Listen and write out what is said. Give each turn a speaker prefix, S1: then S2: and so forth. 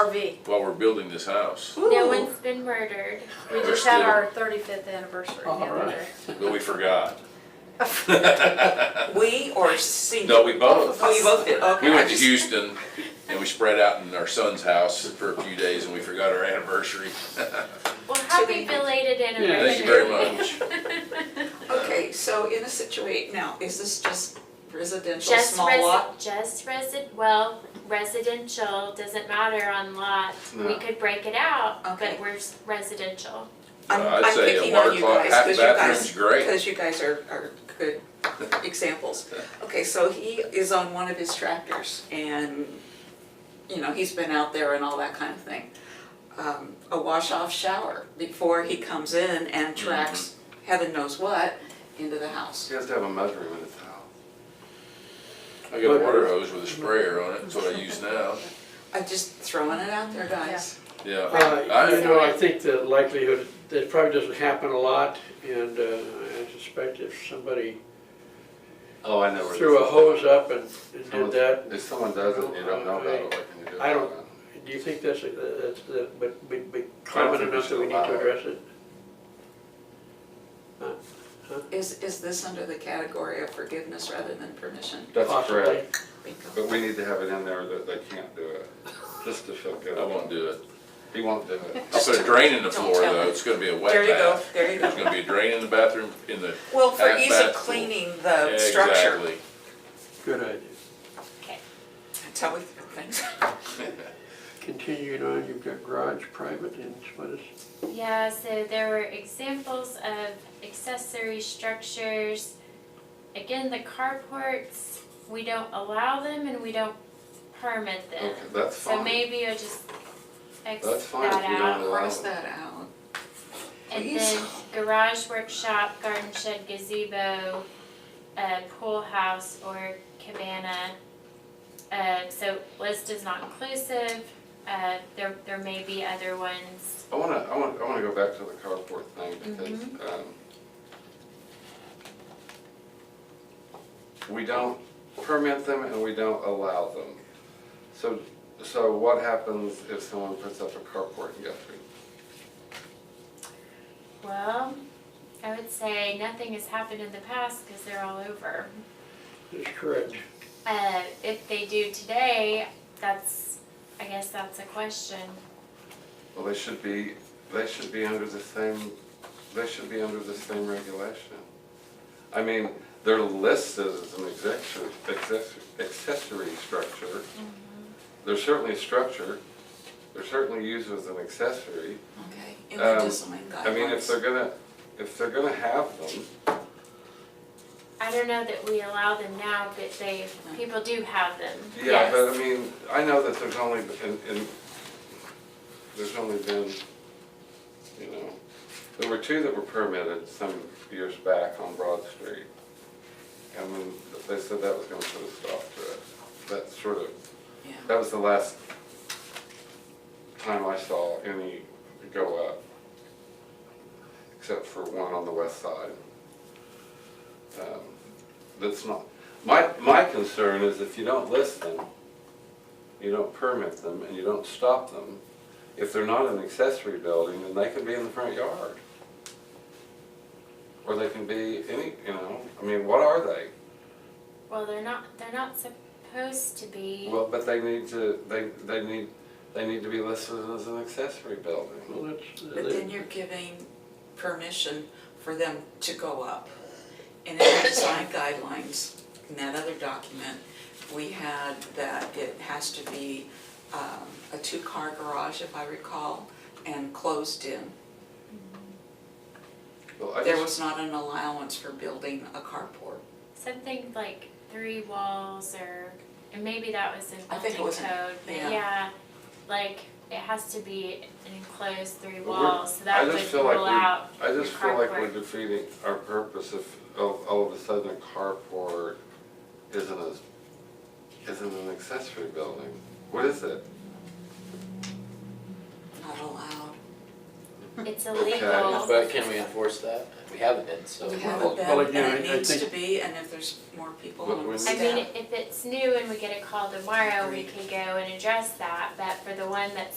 S1: RV.
S2: while we're building this house,
S3: Ooh.
S4: No one's been murdered.
S1: We
S2: We're
S1: just had
S2: still-
S1: our thirty-fifth anniversary the
S3: Oh, All
S1: other
S3: right.
S1: day.
S2: but we forgot.
S3: We or C?
S2: No, we both.
S3: Oh, you both did, okay.
S2: We
S3: I
S2: went to
S3: just-
S2: Houston and we spread out in our son's house for a few days and we forgot our anniversary.
S4: Well,
S3: we-
S4: happy belated anniversary.
S2: Thank you very much.
S3: Okay, so in a situation, now, is this just residential,
S4: Just
S3: small lot?
S4: resi- just resi- well, residential, doesn't matter on lot. We
S5: No.
S4: could break it out,
S3: Okay.
S4: but we're s- residential.
S3: I'm,
S2: Uh, I'd
S3: I'm
S2: say a
S3: picking on
S2: water
S3: you
S2: closet,
S3: guys,
S2: half
S3: because you
S2: bathroom's
S3: guys,
S2: great.
S3: because you guys are, are good examples. Okay, so he is on one of his tractors and, you know, he's been out there and all that kind of thing. Um, a wash-off shower before he comes in and tracks
S2: Mm-hmm.
S3: heaven knows what into the house.
S5: She has to have a measuring in his house.
S2: I got a water hose with a sprayer on it, that's what I use now,
S3: I'm just throwing it out there, guys.
S2: yeah.
S6: Uh,
S2: I-
S6: You know, I think the likelihood, that probably doesn't happen a lot, and uh, I suspect if somebody
S5: Oh, I know where this
S6: threw a
S5: is.
S6: hose up and and did
S5: Someone-
S6: that,
S5: If someone does it, you don't know about it, what can you do?
S6: I don't-
S5: about it?
S6: do you think that's, a- that's, the- but, but- but common
S5: think we
S6: enough that we
S5: should
S6: need
S5: allow
S6: to
S5: it.
S6: address it?
S3: Is, is this under the category of forgiveness rather than permission?
S5: That's
S6: Possibly.
S5: correct,
S3: Bingo.
S5: but we need to have it in there that they can't do it, just to feel good.
S2: I won't do it.
S5: He won't do it.
S2: I'll put a drain in the
S3: Don't
S2: floor
S3: tell
S2: though,
S3: me.
S2: it's gonna be a wet
S3: There you go,
S2: bath.
S3: there you
S2: There's
S3: go.
S2: gonna be a drain in the bathroom, in the.
S3: Well, for
S2: at
S3: ease
S2: bath
S3: of
S2: pool.
S3: cleaning the structure,
S2: Exactly.
S6: Good idea.
S3: that's how we put things.
S6: Continuing on, you've got garage, private, and what is?
S4: Yeah, so there were examples of accessory structures. Again, the carports, we don't allow them and we don't permit them.
S5: Okay, that's
S4: So
S5: fine,
S4: maybe you'll just X
S5: That's fine if
S4: that
S5: you don't
S4: out.
S3: Cross that out.
S4: And
S3: Please.
S4: then garage, workshop, garden shed, gazebo, uh, pool house or cabana. Uh, so list is not inclusive, uh, there, there may be other ones.
S5: I wanna, I wanna, I wanna go back to the carport thing, because, um, um, we don't permit them and we don't allow them. So, so what happens if someone puts up a carport in Guthrie?
S4: Well, I would say nothing has happened in the past because they're all over.
S6: That's correct.
S4: Uh, if they do today, that's, I guess that's a question.
S5: Well, they should be, they should be under the same, they should be under the same regulation. I mean, they're listed as an accessory, accessory- accessory structure. They're certainly a structure, they're certainly used as an accessory.
S3: Okay, in the
S5: Um,
S3: design guidelines.
S5: I mean, if they're gonna, if they're gonna have them,
S4: I don't know that we allow them now, but they, people do have them.
S5: yeah, but I
S4: Yes.
S5: mean, I know that there's only, and, and, there's only been, you know, there were two that were permitted some years back on Broad Street. And when, they said that was gonna put a stop to it. That sort of,
S3: Yeah.
S5: that was the last time I saw any go up. Except for one on the west side. Um, That's not, my, my concern is if you don't list them, you don't permit them, and you don't stop them, if they're not an accessory building, then they can be in the front yard. Or they can be any, you know, I mean, what are they?
S4: Well, they're not, they're not supposed to be.
S5: Well, but they need to, they, they need, they need to be listed as an accessory building.
S6: Well, that's,
S3: But then you're giving permission for them to go up. And in the design guidelines, in that other document, we had that it has to be um, a two-car garage, if I recall, and closed in.
S5: Well, I
S3: There
S5: just-
S3: was not an allowance for building a carport.
S4: Something like three walls or, and maybe that was in
S3: I think it
S4: building
S3: was in-
S4: code, but
S3: yeah.
S4: yeah, like, it has to be an enclosed three
S5: But we're-
S4: walls, so
S5: I
S4: that
S5: just
S4: would
S5: feel like
S4: rule
S5: we-
S4: out.
S5: I just
S4: your
S5: feel like we're
S4: carport.
S5: defeating our purpose if all, all of a sudden a carport isn't a, isn't an accessory building. What is it?
S3: Not allowed.
S4: It's
S5: Okay.
S4: illegal.
S7: But can we enforce that? We haven't been, so.
S3: We
S6: Well,
S3: haven't
S6: well,
S3: been,
S6: again,
S3: and
S6: I- I
S3: it needs to
S6: think-
S3: be, and if there's more people
S5: But
S3: on
S5: when-
S4: I
S3: staff.
S4: mean, if it's new and we get a call tomorrow, we
S3: Agreed.
S4: could go and address that, but for the one that's